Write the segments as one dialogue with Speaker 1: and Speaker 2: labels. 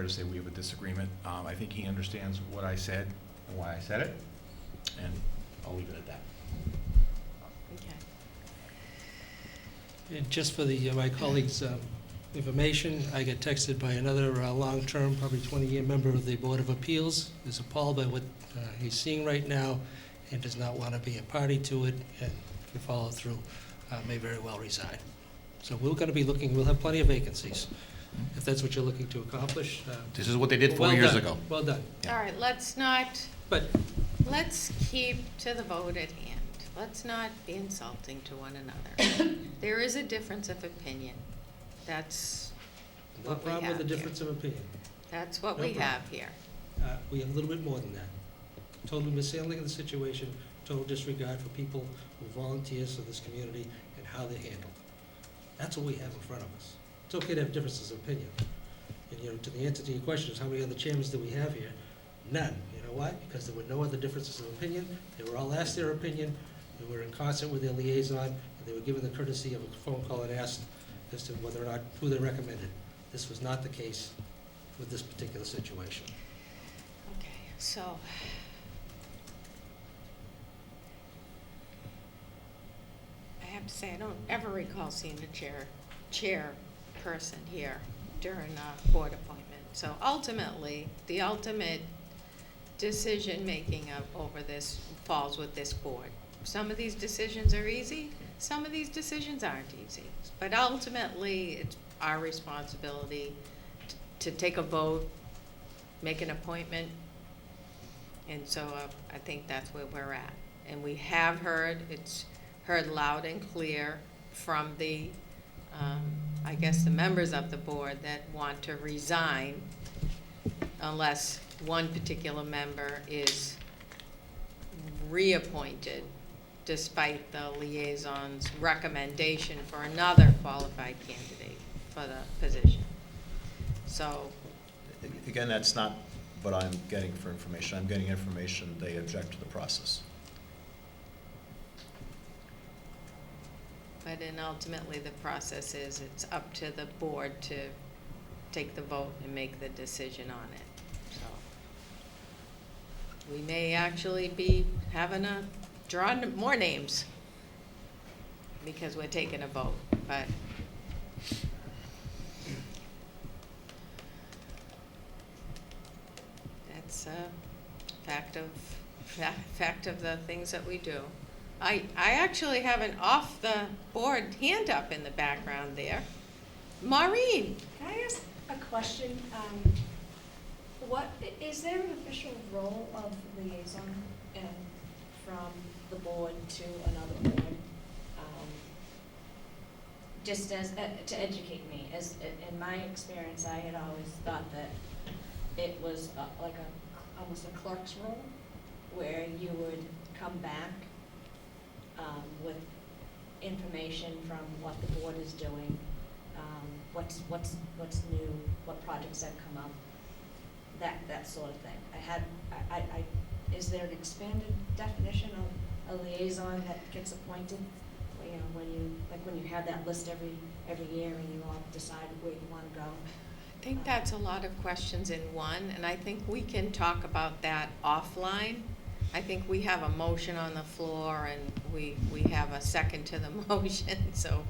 Speaker 1: fair to say we have a disagreement. Um, I think he understands what I said and why I said it, and I'll leave it at that.
Speaker 2: Okay.
Speaker 3: And just for the, uh, my colleagues' um, information, I got texted by another uh, long-term, probably 20-year member of the Board of Appeals, is appalled by what uh, he's seeing right now and does not want to be a party to it, and if you follow through, uh, may very well resign. So we're going to be looking, we'll have plenty of vacancies, if that's what you're looking to accomplish. uh,
Speaker 1: This is what they did four
Speaker 3: well
Speaker 1: years
Speaker 3: done,
Speaker 1: ago.
Speaker 3: Well done.
Speaker 1: Yeah.
Speaker 2: All right, let's not,
Speaker 3: But
Speaker 2: let's keep to the vote at hand. Let's not be insulting to one another. There is a difference of opinion. That's
Speaker 3: no
Speaker 2: what we
Speaker 3: problem with the
Speaker 2: have here.
Speaker 3: difference of opinion.
Speaker 2: That's what
Speaker 3: No
Speaker 2: we
Speaker 3: problem.
Speaker 2: have here.
Speaker 3: Uh, We have a little bit more than that. Total mishandling of the situation, total disregard for people who volunteers for this community and how they're handled. That's what we have in front of us. It's okay to have differences of opinion. And, you know, to the answer to your question is, how many other chairmans do we have here? None. You know why? Because there were no other differences of opinion. They were all asked their opinion, they were in concert with their liaison, and they were given the courtesy of a phone call and asked as to whether or not, who they recommended. This was not the case with this particular situation.
Speaker 2: Okay, so. I have to say, I don't ever recall seeing a chair, chairperson here during a board appointment. So ultimately, the ultimate decision-making of, over this falls with this board. Some of these decisions are easy, some of these decisions aren't easy. But ultimately, it's our responsibility t- to take a vote, make an appointment. And so uh, I think that's where we're at. And we have heard, it's heard loud and clear from the, um, I guess, the members of the board that want to resign unless one particular member is reappointed despite the liaison's recommendation for another qualified candidate for the position. So
Speaker 4: Again, that's not what I'm getting for information. I'm getting information, they object to the process.
Speaker 2: But then ultimately, the process is, it's up to the board to take the vote and make the decision on it, so. We may actually be having a, drawing more names because we're taking a vote, but. That's a fact of, fa- fact of the things that we do. I, I actually have an off-the-board hand up in the background there. Maureen,
Speaker 5: Can I ask a question? Um, What, i- is there an official role of liaison um, from the board to another board? Um, Just as, uh, to educate me, as, i- in my experience, I had always thought that it was a- like a, almost a clerk's role, where you would come back um, with information from what the board is doing um, what's, what's, what's new, what projects have come up, that, that sort of thing. I had, I, I, I- is there an expanded definition of a liaison that gets appointed? Well, You know, when you, like when you have that list every, every year and you all decide where you wanna go?
Speaker 2: I think that's a lot of questions in one, and I think we can talk about that offline. I think we have a motion on the floor, and we, we have a second to the motion, so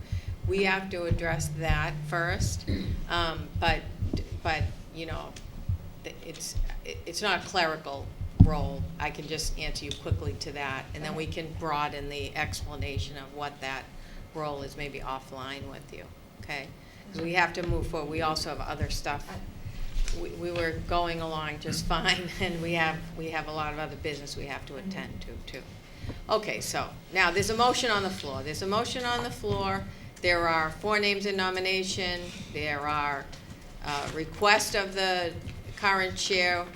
Speaker 2: we have to address that first. Um, but, but, you know, th- it's, it- it's not a clerical role. I can just answer you quickly to that, and then we can broaden the explanation of what that role is maybe offline with you, okay? Because we have to move forward. We also have other stuff. We, we were going along just fine, and we have, we have a lot of other business we have to attend to, too. Okay, so, now, there's a motion on the floor. There's a motion on the floor. There are four names in nomination. There are uh, request of the current chair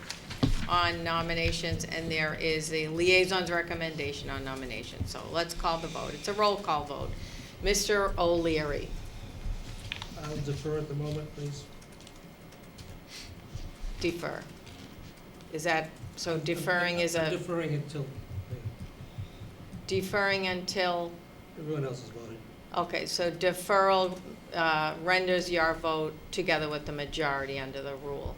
Speaker 2: on nominations, and there is a liaison's recommendation on nomination. So let's call the vote. It's a roll call vote. Mr. O'Leary.
Speaker 3: I'll defer at the moment, please.
Speaker 2: Defer. Is that, so deferring is
Speaker 3: I'm
Speaker 2: a,
Speaker 3: Deferring until
Speaker 2: deferring until,
Speaker 3: everyone else has voted.
Speaker 2: okay, so deferral uh, renders your vote together with the majority under the rule.